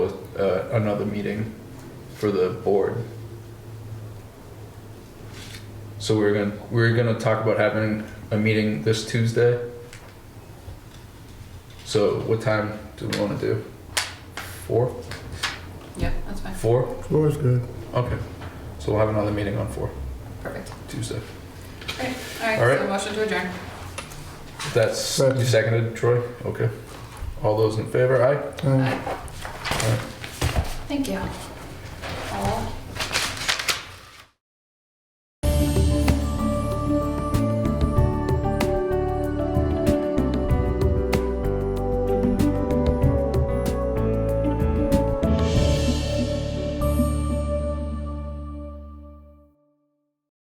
uh, another meeting for the board. So we we're gonna, we we're gonna talk about having a meeting this Tuesday. So what time do we wanna do? Four? Yep, that's fine. Four? Four is good. Okay. So we'll have another meeting on four, Perfect. Tuesday. Great. All All right, right. so motion to adjourn. That's, you Second. seconded, Troy? Okay. All those in favor, aye? Aye. Thank you.